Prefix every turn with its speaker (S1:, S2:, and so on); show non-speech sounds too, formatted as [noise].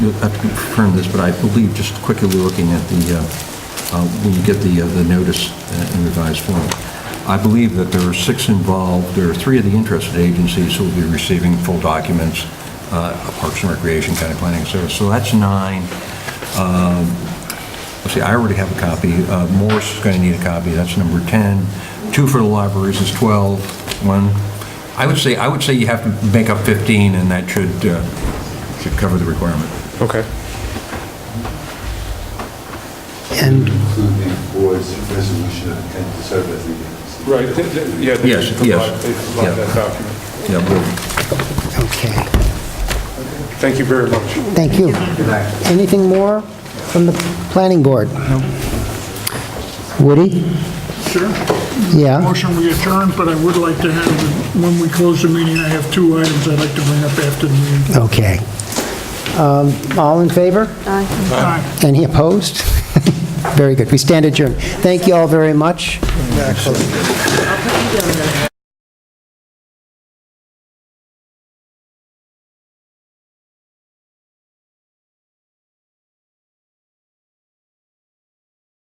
S1: you'll have to confirm this, but I believe, just quickly looking at the, uh, uh, when you get the, uh, the notice uh, in revised form, I believe that there are six involved, there are three of the interested agencies who will be receiving full documents, uh, Parks and Recreation, County Planning Service, so that's nine. Um, Let's see, I already have a copy. Uh, Morse is going to need a copy, that's number 10. Two for the libraries is 12, one. I would say, I would say you have to make up 15, and that should, uh, should cover the requirement.
S2: Okay.
S3: And
S4: include the board's resolution and to serve as the agency.
S2: Right, th- th- yeah. they
S1: Yes,
S2: provide-
S1: yes,
S2: They
S1: yeah.
S2: provide that document.
S1: Yeah, we'll-
S3: Okay,
S2: Thank you very much.
S3: thank you. Anything more from the planning board? Woody?
S5: Sure.
S3: Yeah,
S5: Motion we adjourn, but I would like to have, when we close the meeting, I have two items I'd like to bring up after the meeting.
S3: okay. Um, All in favor?
S5: Aye.
S3: Any opposed? [laughs] Very good, we stand adjourned. Thank you all very much.